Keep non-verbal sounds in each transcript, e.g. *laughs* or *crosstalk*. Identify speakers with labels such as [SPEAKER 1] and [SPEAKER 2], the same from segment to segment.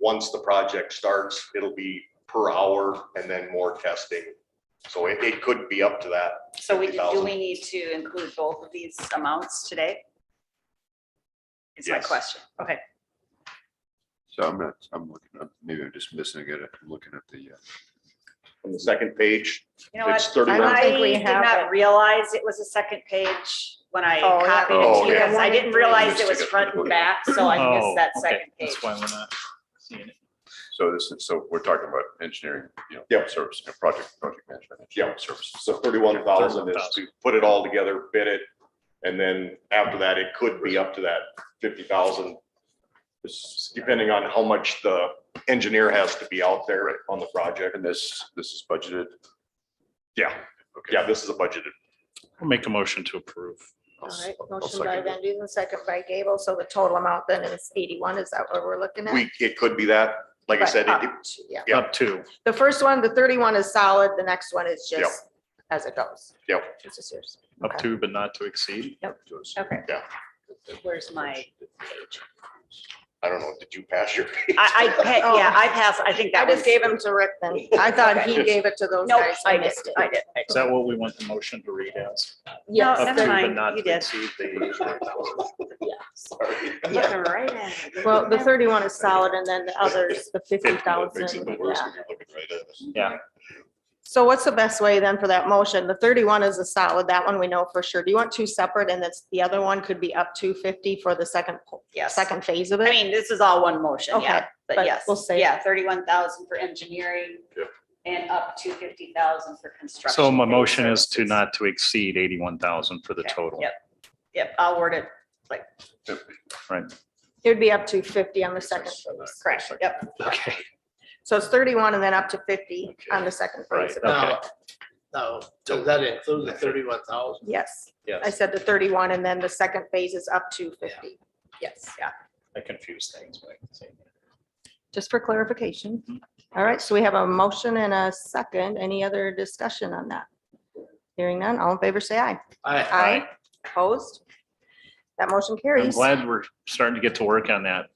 [SPEAKER 1] once the project starts, it'll be per hour and then more testing. So it, it could be up to that.
[SPEAKER 2] So we, do
[SPEAKER 1] 50,000.
[SPEAKER 2] we need to include both of these amounts today? Is my
[SPEAKER 1] Yes.
[SPEAKER 2] question. Okay,
[SPEAKER 3] So I'm not, I'm looking, up. maybe I'm just missing, I got it, I'm looking at the, uh,
[SPEAKER 1] On the second page,
[SPEAKER 2] you know what?
[SPEAKER 1] It's 31.
[SPEAKER 2] I
[SPEAKER 1] I
[SPEAKER 4] think we
[SPEAKER 2] did
[SPEAKER 4] have
[SPEAKER 2] not
[SPEAKER 4] it.
[SPEAKER 2] realize it was a second page when I
[SPEAKER 4] Oh, yeah.
[SPEAKER 2] copied it
[SPEAKER 1] Oh,
[SPEAKER 2] to you
[SPEAKER 1] okay.
[SPEAKER 2] guys. I didn't realize it was front and back, so I
[SPEAKER 5] Oh,
[SPEAKER 2] missed that
[SPEAKER 5] okay,
[SPEAKER 2] second page.
[SPEAKER 5] That's why we're not seeing it.
[SPEAKER 3] so this is, so we're talking about engineering, you know.
[SPEAKER 1] Yep.
[SPEAKER 3] Service, you know, project, project management. engineering
[SPEAKER 1] Yep.
[SPEAKER 3] Services.
[SPEAKER 1] so thirty-one thousand is to put it all together, bid it, and then after that, it could be up to that fifty thousand. Depending on how much the engineer has to be out there on the project.
[SPEAKER 3] And this, this is budgeted.
[SPEAKER 1] Yeah,
[SPEAKER 3] Okay.
[SPEAKER 1] yeah, this is a budgeted.
[SPEAKER 5] We'll make a motion to approve.
[SPEAKER 3] I'll
[SPEAKER 4] All
[SPEAKER 3] s-
[SPEAKER 4] right,
[SPEAKER 3] I'll
[SPEAKER 4] motion by
[SPEAKER 3] second
[SPEAKER 4] Van
[SPEAKER 3] it.
[SPEAKER 4] Duzen, second by Gable, so the total amount then is eighty-one, is that what we're looking at?
[SPEAKER 1] We, it could be that, like I
[SPEAKER 4] But
[SPEAKER 1] said, it-
[SPEAKER 4] up to- Yeah,
[SPEAKER 1] Yeah.
[SPEAKER 5] Up to,
[SPEAKER 4] the first one, the thirty-one is solid, the next one is
[SPEAKER 1] Yep.
[SPEAKER 4] just as it goes.
[SPEAKER 1] Yep.
[SPEAKER 4] It's just yours.
[SPEAKER 5] up
[SPEAKER 4] Okay.
[SPEAKER 5] to, but not to exceed.
[SPEAKER 2] Okay.
[SPEAKER 1] Yeah.
[SPEAKER 2] Where's my,
[SPEAKER 1] I don't know, did you pass your?
[SPEAKER 2] *laughs* I, I, pa- yeah, I passed, I think that
[SPEAKER 4] I
[SPEAKER 2] was.
[SPEAKER 4] just gave them to Rick then.
[SPEAKER 2] *laughs*
[SPEAKER 4] I thought he
[SPEAKER 2] Okay.
[SPEAKER 4] gave it to those
[SPEAKER 2] Nope,
[SPEAKER 4] guys.
[SPEAKER 2] I did, I did. I
[SPEAKER 5] Is that what we want the motion to read as?
[SPEAKER 2] No,
[SPEAKER 4] Yes.
[SPEAKER 5] Up
[SPEAKER 2] Oh, never
[SPEAKER 5] to, but
[SPEAKER 2] mind,
[SPEAKER 5] not
[SPEAKER 2] you
[SPEAKER 5] to
[SPEAKER 2] did.
[SPEAKER 5] exceed
[SPEAKER 2] *laughs*
[SPEAKER 5] the-
[SPEAKER 2] did.
[SPEAKER 1] *laughs*
[SPEAKER 2] Looking right at it.
[SPEAKER 4] Well, the thirty-one is solid and then the others, the fifty thousand.
[SPEAKER 5] Yeah,
[SPEAKER 4] So what's the best way then for that motion? The thirty-one is a solid, that one we know for sure. Do you want two separate and that's, the other one could be up to fifty for the second,
[SPEAKER 2] Yes.
[SPEAKER 4] second phase of
[SPEAKER 2] I
[SPEAKER 4] it?
[SPEAKER 2] mean, this is all one motion, yeah,
[SPEAKER 4] Okay,
[SPEAKER 2] but
[SPEAKER 4] but
[SPEAKER 2] yes,
[SPEAKER 4] we'll save
[SPEAKER 2] yeah, thirty-one thousand for engineering.
[SPEAKER 3] Yep.
[SPEAKER 2] And up to fifty thousand for construction.
[SPEAKER 5] so my
[SPEAKER 2] and
[SPEAKER 5] motion is to
[SPEAKER 2] services.
[SPEAKER 5] not to exceed eighty-one thousand for the
[SPEAKER 2] Okay,
[SPEAKER 5] total.
[SPEAKER 2] Yep, yep, I'll word it,
[SPEAKER 4] It would be up to fifty on the second phase.
[SPEAKER 2] correct, yep,
[SPEAKER 5] Okay,
[SPEAKER 4] So it's thirty-one and then up to fifty on the second
[SPEAKER 5] right,
[SPEAKER 4] phase. of it.
[SPEAKER 5] okay.
[SPEAKER 6] Now, now, does that include the thirty-one thousand?
[SPEAKER 4] Yes, I
[SPEAKER 6] Yes.
[SPEAKER 4] said the thirty-one and then the second phase is up to fifty. Yes,
[SPEAKER 2] yeah.
[SPEAKER 5] I confused things. but I can say that.
[SPEAKER 4] just for clarification. Mm-hmm. All right, so we have a motion and a second. Any other discussion on that? Hearing none, all in favor, say aye.
[SPEAKER 6] I,
[SPEAKER 4] Aye. Opposed? That motion
[SPEAKER 5] I'm
[SPEAKER 4] carries.
[SPEAKER 5] glad we're starting to get to work on that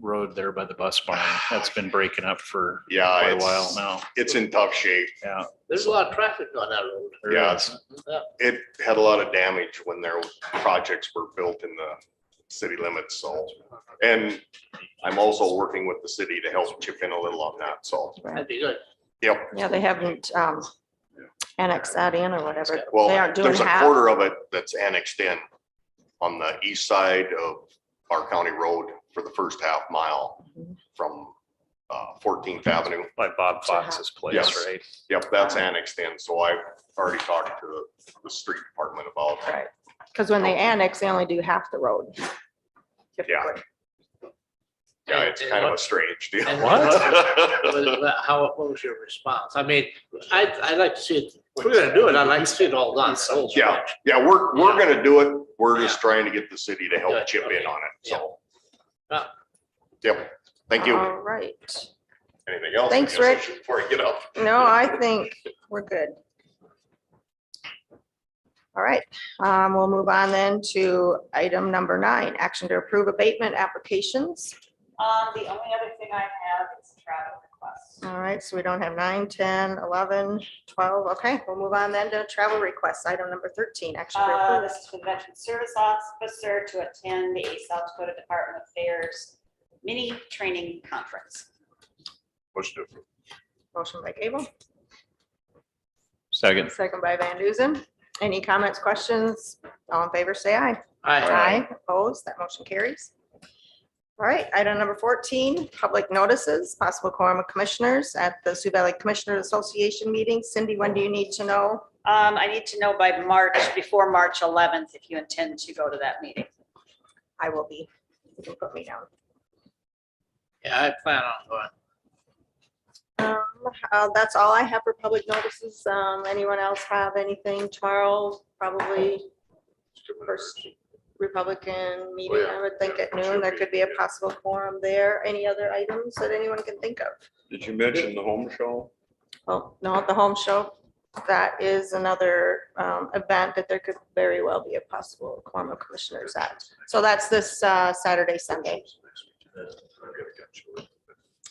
[SPEAKER 5] road there by the bus barn.
[SPEAKER 2] *sighs*
[SPEAKER 5] That's been breaking up for
[SPEAKER 1] Yeah,
[SPEAKER 5] quite a while
[SPEAKER 1] it's,
[SPEAKER 5] now.
[SPEAKER 1] it's in tough shape.
[SPEAKER 5] Yeah.
[SPEAKER 6] there's a lot of traffic on that road.
[SPEAKER 5] there
[SPEAKER 1] Yeah,
[SPEAKER 5] is.
[SPEAKER 6] Yeah.
[SPEAKER 1] It had a lot of damage when their projects were built in the city limits, so. And I'm also working with the city to help chip in a little on that, so,
[SPEAKER 6] That'd be good.
[SPEAKER 1] yep.
[SPEAKER 4] Yeah, they haven't um annexed that in or whatever.
[SPEAKER 1] Well,
[SPEAKER 4] They aren't doing
[SPEAKER 1] there's a
[SPEAKER 4] half.
[SPEAKER 1] quarter of it that's annexed in on the east side of our county road for the first half mile from uh, 14th Avenue.
[SPEAKER 5] By Bob Fox's place,
[SPEAKER 1] Yes.
[SPEAKER 5] right?
[SPEAKER 1] Yep, that's annexed in, so I've already talked to the street department about
[SPEAKER 4] Right, because when they annex, they only do half the road. typically.
[SPEAKER 1] Yeah, it's
[SPEAKER 6] And-
[SPEAKER 1] kind of a
[SPEAKER 6] and
[SPEAKER 1] strange deal.
[SPEAKER 6] and
[SPEAKER 5] What?
[SPEAKER 1] *laughs*
[SPEAKER 6] what- what- How, what was your response? I mean, I, I'd like to see it, if we're gonna do it, I'd like to see it all done. the whole
[SPEAKER 1] Yeah.
[SPEAKER 6] stretch.
[SPEAKER 1] Yeah, we're, we're gonna do it. We're just
[SPEAKER 6] Yeah.
[SPEAKER 1] trying to get the city to help chip in on it, so.
[SPEAKER 6] Yeah.
[SPEAKER 1] Yep, thank you.
[SPEAKER 4] All right.
[SPEAKER 1] Anything else? I
[SPEAKER 4] Uh, Thanks,
[SPEAKER 1] guess I
[SPEAKER 4] Rick.
[SPEAKER 1] should- Before I get up.
[SPEAKER 4] No, I think we're good. All right, um, we'll move on then to item number nine, action to approve abatement applications.
[SPEAKER 2] um, the only other thing I have is travel requests.
[SPEAKER 4] All right, so we don't have nine, 10, 11, 12. Okay, we'll move on then to travel requests, item number 13, action to
[SPEAKER 2] Uh,
[SPEAKER 4] approve.
[SPEAKER 2] this is for the Veteran Service Officer to attend the South Dakota Department of Affairs mini training conference.
[SPEAKER 3] Motion to approve.
[SPEAKER 4] Motion by Gable,
[SPEAKER 5] Second.
[SPEAKER 4] second by Van Duzen. Any comments, questions? All in favor, say aye.
[SPEAKER 6] I,
[SPEAKER 4] Aye. Opposed, that motion carries. All right, item number 14, public notices, possible quorum of commissioners at the Sioux Valley Commissioners Association meeting. Cindy, when do you need to know?
[SPEAKER 2] Um, I need to know by March, before March eleventh, if you intend to go to that meeting.
[SPEAKER 4] I will be, you can put me down.
[SPEAKER 6] yeah, I plan on going.
[SPEAKER 4] Um, uh, that's all I have for public notices. Um, anyone else have anything? Charles, probably first Republican meeting, I would think at noon. There could be a possible quorum there. Any other items that anyone can think of?
[SPEAKER 1] Did you mention the home show?
[SPEAKER 4] Well, no, at the home show, that is another, um, event that there could very well be a possible quorum of commissioners at. So that's this, uh, Saturday, Sunday.